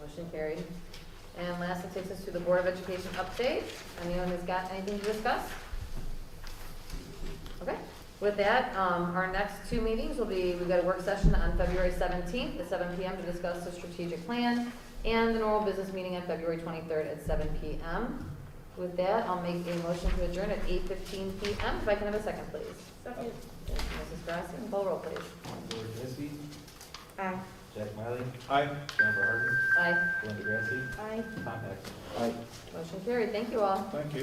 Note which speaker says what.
Speaker 1: Motion carried. And lastly, takes us to the Board of Education update. Anyone has got anything to discuss? Okay, with that, um, our next two meetings will be, we've got a work session on February 17th at 7 PM to discuss the strategic plan, and the normal business meeting on February 23rd at 7 PM. With that, I'll make a motion to adjourn at 8:15 PM. If I can have a second, please.
Speaker 2: Second.
Speaker 1: Thank you, Mrs. Grassi, call roll, please.
Speaker 3: Lori Knessy,
Speaker 2: Aye.
Speaker 3: Jack Miley. Aye. Jennifer
Speaker 1: Aye.
Speaker 3: Harden, Belinda Grassi,
Speaker 2: Aye.
Speaker 3: Tom Heck. Aye.
Speaker 1: Motion carried. Thank you all.
Speaker 3: Thank you.